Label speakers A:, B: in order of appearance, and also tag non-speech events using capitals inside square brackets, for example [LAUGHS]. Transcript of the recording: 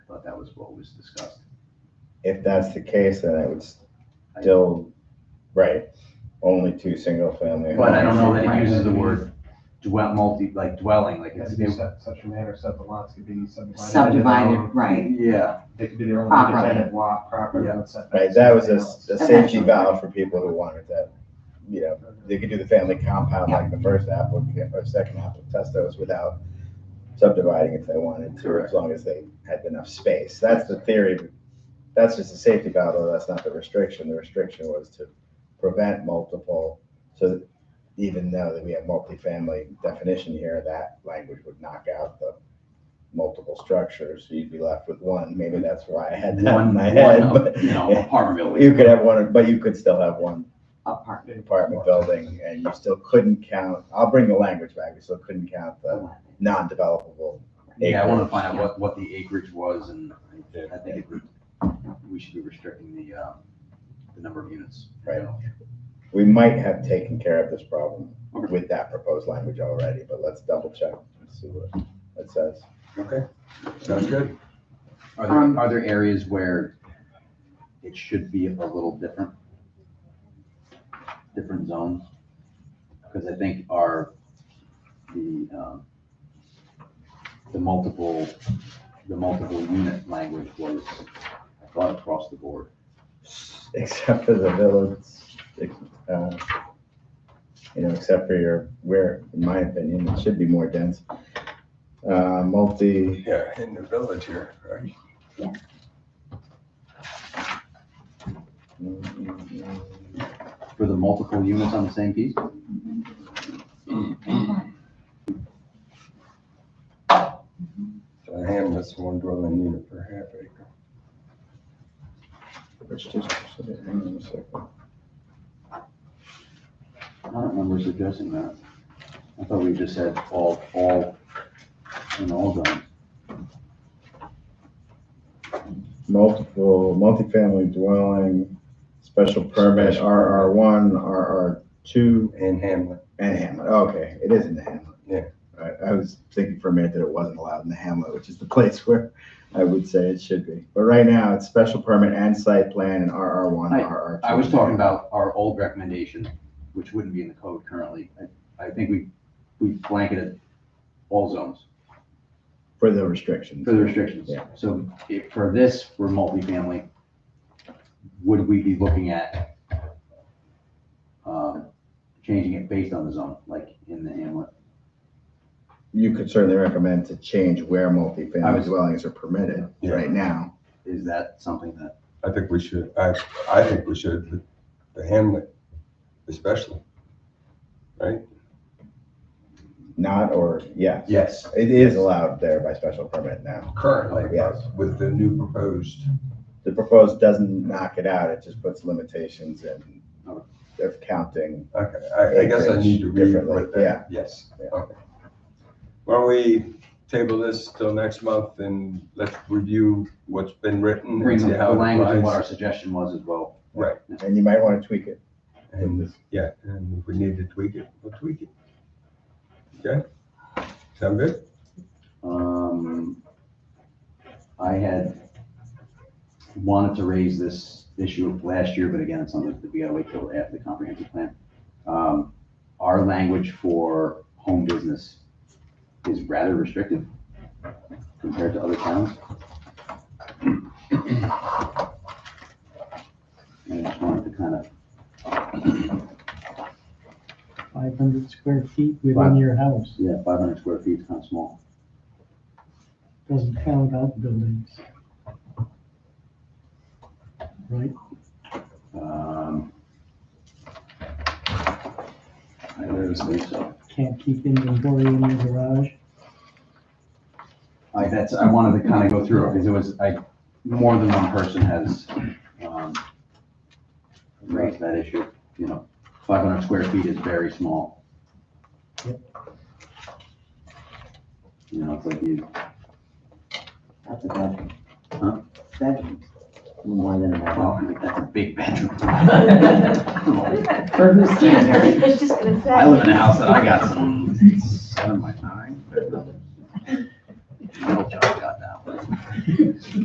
A: thought that was what was discussed.
B: If that's the case, then it would still, right, only two single-family.
A: But I don't know that it
B: homes.
A: uses the word dwell, multi, like dwelling, like
C: It has
A: it's,
C: to be in such such a manner so that the lots could be subdivided.
D: subdivided, right,
A: yeah,
C: They could be their own
D: Properly.
C: independent lot property.
A: Yeah.
C: with setbacks
B: Right,
C: and
B: that was a,
C: everything
B: a
D: else.
B: safety
D: Eventually.
B: valve for people who wanted that, you know,
C: else.
B: they could do the family compound like the first applicant or second applicant Testos without subdividing if they wanted to, as
A: Correct.
B: long as they had enough space. That's the theory. That's just a safety valve, though. That's not the restriction. The restriction was to prevent multiple, so that even though that we have multifamily definition here, that language would knock out the multiple structures. So you'd be left with one. Maybe that's why I had that in
A: one,
B: my head.
A: one,
B: but-
A: you know, apartment
B: [LAUGHS] You
A: building.
B: could have one, but you could still have one
D: apartment.
B: apartment building and you still couldn't count, I'll bring the language back, you still couldn't count the non-developable.
A: Yeah, I want to
B: acreage.
A: find out what, what the acreage was and I think it would- we should be restricting the, um, the number of units.
B: Right. We might have taken care of this problem with that proposed language already, but let's double check and see what it says.
A: Okay, sounds good. Are
D: Um,
A: there, are there areas where it should be a little different? Different zones? Because I think our, the, um, the multiple, the multiple unit language was, I thought, across the board.
B: Except for the village, uh, you know, except for your, where, in my opinion, it should be more dense. Uh, multi,
E: Yeah, in the village here, right?
A: For the multiple units on the same piece?
E: So Ham, that's one dwelling unit per half acre.
B: which just, hang on a second.
A: I don't remember suggesting that. I thought we just said all, all, in all zones.
B: multiple, multifamily dwelling, special permit,
E: Special
B: RR one, RR two,
E: And Hamlet,
B: and Hamlet, okay, it is in the Hamlet.
E: Yeah.
B: I, I was thinking for a minute that it wasn't allowed in the Hamlet, which is the [LAUGHS] place where I would say it should be, but right now, it's special permit and site plan and RR one,
A: I-
B: RR two.
A: I was talking about our old recommendation, which wouldn't be in the code currently. I, I think we, we blanketed all zones
B: For the restrictions,
A: for the restrictions.
B: Yeah.
A: So if, for this, for multifamily, would we be looking at, um, changing it based on the zone, like in the hamlet?
B: you could certainly recommend to change where
A: I
B: multifamily
A: was-
B: dwellings are permitted
E: Yeah.
B: right now.
A: Is that something that,
E: I think we should, I, I think we should, but the Hamlet especially.
B: Not, or, yes,
E: Yes.
B: it is allowed there by special permit now.
E: Currently,
B: Yes.
E: with the new proposed,
B: The proposed doesn't knock it out, it just puts limitations in
A: Okay.
B: of counting.
E: okay, I, I guess I need to read what
B: Differently, yeah.
E: that, yes.
B: Yeah.
E: okay. Why don't we table this till next month and let's review what's been written
A: bring
E: and
A: the
E: see how
A: the
E: it
A: language and what our
E: applies.
A: suggestion was as well?
E: Right,
B: And you might want to tweak it.
E: and, yeah, and if we need to tweak it, we'll tweak it. Okay? Sound good?
A: Um, I had wanted to raise this issue of last year, but again, it's something that we gotta wait till after the comprehensive plan. Um, our language for home business is rather restrictive compared to other towns. And I just wanted to kind of,
F: Five hundred square feet
A: Five.
F: within your house,
A: yeah, five hundred square feet is kind of small.
F: doesn't count outbuildings. Right,
A: Um, I don't believe so.
F: can't keep inventory in your garage.
A: I, that's, I wanted to kind of go through it because it was, I, more than one person has, um, raised that issue, you know, five hundred square feet is very small.
F: Yep.
A: You know, it's like you,
D: That's a bedroom.
A: Huh?
D: Bedrooms, more than a bedroom.
A: well, like, that's a big bedroom.
D: For whose standard?
G: I was just gonna say.
A: I live in a house that I got some, seven by